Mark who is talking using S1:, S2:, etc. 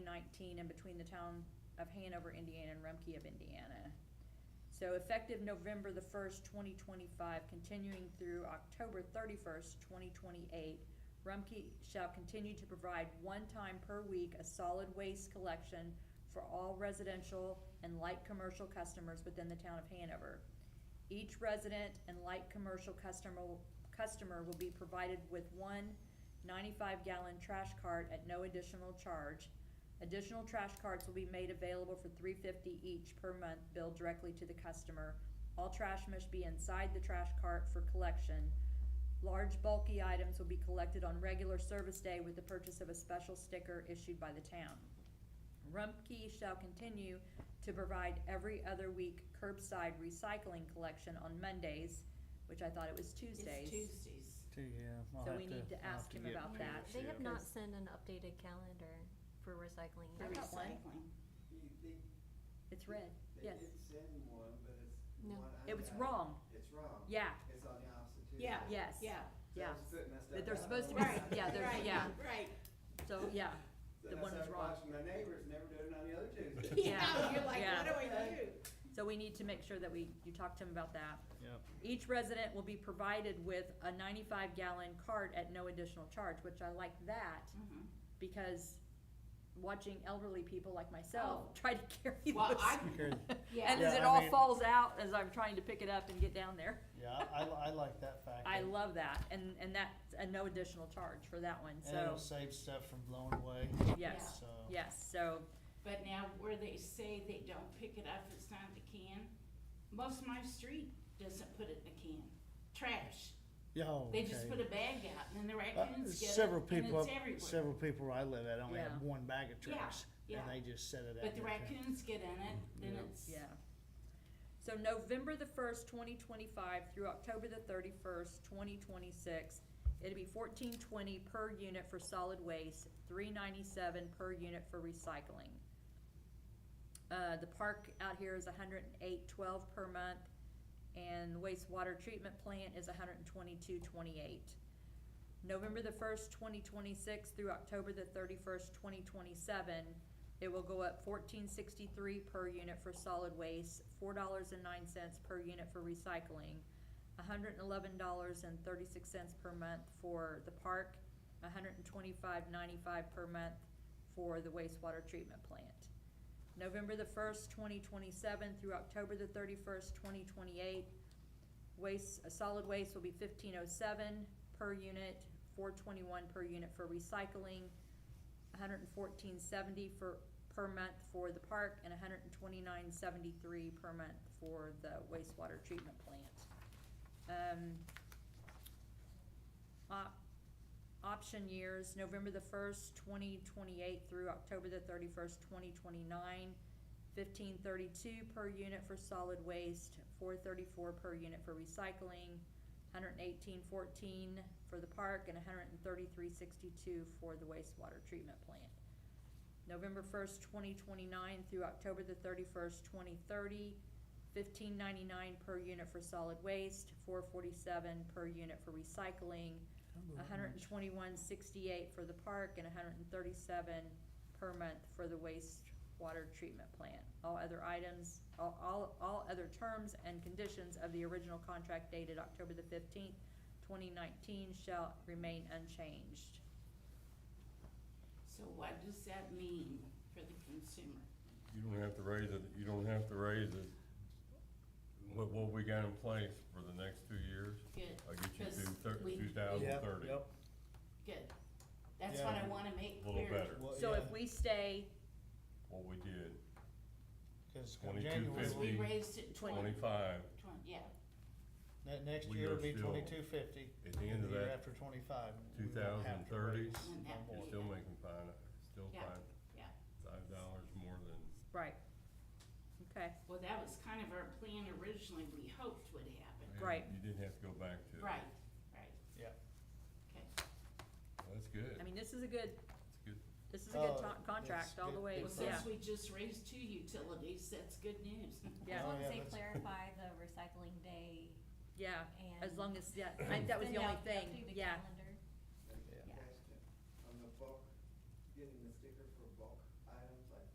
S1: nineteen and between the town of Hanover, Indiana and Rumkey of Indiana. So effective November the first, twenty twenty-five, continuing through October thirty-first, twenty twenty-eight, Rumkey shall continue to provide one time per week a solid waste collection for all residential and light commercial customers within the town of Hanover. Each resident and light commercial customer, customer will be provided with one 95 gallon trash cart at no additional charge. Additional trash carts will be made available for 350 each per month billed directly to the customer. All trash must be inside the trash cart for collection. Large bulky items will be collected on regular service day with the purchase of a special sticker issued by the town. Rumpke shall continue to provide every other week curbside recycling collection on Mondays, which I thought it was Tuesdays.
S2: It's Tuesdays.
S3: Too, yeah. I'll
S1: So
S3: have
S1: we need to
S3: I'll have
S1: ask him
S3: get
S1: about
S3: to
S1: that.
S3: it,
S4: They have
S3: yeah.
S4: not
S1: Cause-
S4: sent an updated calendar for recycling.
S1: I
S4: yet.
S1: got one.
S2: Recycling.
S1: It's red,
S5: They
S1: yes.
S5: did send one, but it's the
S4: No.
S5: one I
S1: It was
S5: got.
S1: wrong,
S5: It's wrong.
S1: yeah,
S5: It's on the opposite Tuesday.
S2: Yeah,
S1: yes.
S2: yeah,
S5: So I
S1: yeah.
S5: was putting that stuff
S1: That they're
S5: out.
S1: supposed to be,
S2: right,
S1: yeah, they're,
S2: right,
S1: yeah,
S2: right.
S1: so, yeah,
S5: So
S1: the
S5: I
S1: one was
S5: started
S1: wrong.
S5: watching My neighbors never do it on the other Tuesday.
S1: Yeah,
S2: Yeah, you're like,
S1: yeah.
S2: what do we do?
S1: so we need to make sure that we, you talk to him about that.
S3: Yep.
S1: Each resident will be provided with a ninety-five gallon cart at no additional charge, which I like that,
S2: Mhm.
S1: because watching elderly people like myself
S2: Oh.
S1: try to carry those.
S2: Well, I,
S3: Carry-
S4: Yeah.
S1: And as
S3: Yeah,
S1: it
S3: I
S1: all
S3: mean-
S1: falls out as I'm trying to pick it up and get down there.
S3: Yeah, I, I like that fact.
S1: I
S3: that-
S1: love that, and, and that's a no additional charge for that one,
S3: And it'll
S1: so,
S3: save stuff from blowing away,
S1: yes,
S3: so.
S1: yes, so,
S2: but now where they say they don't pick it up, it's not in the can, most of my street doesn't put it in the can. Trash.
S3: Yeah, oh,
S2: They just put
S3: okay.
S2: a bag out and then the
S3: Uh,
S2: raccoons get it
S3: Several
S2: and it's
S3: people, up-
S2: everywhere.
S3: several people where I live at only
S1: Yeah.
S3: have one bag of
S2: Yeah,
S3: trash, and
S2: yeah.
S3: they just set it out.
S2: But the
S3: there.
S2: raccoons get in it, then
S3: Mm-hmm. Yeah.
S2: it's,
S1: yeah. So November the first, twenty twenty-five through October the thirty-first, twenty twenty-six, it'll be fourteen twenty per unit for solid waste, three ninety-seven per unit for recycling. Uh, the park out here is a hundred and eight twelve per month, and wastewater treatment plant is a hundred and twenty-two twenty-eight. November the first, twenty twenty-six through October the thirty-first, twenty twenty-seven, it will go up fourteen sixty-three per unit for solid waste, four dollars and nine cents per unit for recycling, hundred and eleven dollars and thirty-six cents per month for the park, $125.95 per month for the wastewater treatment plant. November the first, twenty twenty-seven through October the thirty-first, twenty twenty-eight, waste, uh, solid waste will be fifteen oh seven per unit, four twenty-one per unit for recycling, hundred and fourteen seventy for, per month for the park, and hundred and twenty-nine seventy-three per month for the wastewater treatment plant. Um, op- option years, November the first, twenty twenty-eight through October the thirty-first, twenty twenty-nine, fifteen thirty-two per unit for solid waste, four thirty-four per unit for recycling, hundred and eighteen fourteen for the park, and hundred and thirty-three sixty-two for the wastewater treatment plant. November first, twenty twenty-nine through October the thirty-first, twenty thirty, fifteen ninety-nine per unit for solid waste, four forty-seven per unit for recycling,
S3: Number
S1: hundred and twenty-one sixty-eight for the park and hundred and thirty-seven per month for the wastewater treatment plant. All other items, all, all, all other terms and conditions of the original contract dated October the fifteenth, twenty nineteen shall remain unchanged.
S2: so what does that mean for the consumer?
S6: You don't have to raise it, you don't have to raise it. What, what we got in place for the next two years,
S2: Good,
S6: I'll get you
S2: Because we-
S6: to two
S3: one.
S6: thousand
S3: Yep,
S6: thirty.
S3: Yep,
S2: good. That's what I
S3: Yeah.
S2: wanna make
S6: Little
S2: clear.
S6: better.
S3: Well,
S1: So
S3: yeah,
S1: if we stay,
S6: What we did,
S3: 'cause come
S6: 22,
S3: January,
S2: Because we
S6: 50,
S2: raised it twenty,
S6: twenty-five,
S2: twenty, yeah,
S3: that next
S6: we
S3: year
S6: are
S3: will be
S6: still-
S3: twenty-two fifty,
S6: at the
S3: and
S6: end
S3: the
S6: of
S3: year
S6: that,
S3: after twenty-five. we
S6: two
S3: won't
S6: thousand
S3: have to
S6: thirty,
S3: raise
S2: Wouldn't
S3: no
S2: have to
S3: more.
S2: be.
S6: still making five, still
S2: Yeah,
S6: five,
S2: yeah.
S6: five dollars more than,
S1: right, okay,
S2: Well, that was kind of our plan originally, we hoped would happen.
S6: man,
S1: Right.
S6: you didn't have to go back to. it.
S2: Right, right.
S3: Yeah.
S2: Okay,
S6: Well, That's good,
S1: I
S6: that's
S1: mean, this is a good,
S6: good.
S1: this is a good
S3: Oh,
S1: to- contract
S3: that's
S1: all the
S3: good-
S1: way,
S2: well,
S3: good
S1: yeah,
S2: since we just raised two utilities, that's good news.
S1: yeah,
S4: As long as
S3: yeah,
S4: they
S3: that's-
S4: clarify the recycling day
S1: yeah,
S4: and.
S1: as long as, yeah, I- that was
S4: send
S1: the only
S4: out
S1: thing,
S4: updated
S1: yeah.
S4: calendar.
S5: And
S4: Yeah.
S5: Question on the bulk, getting this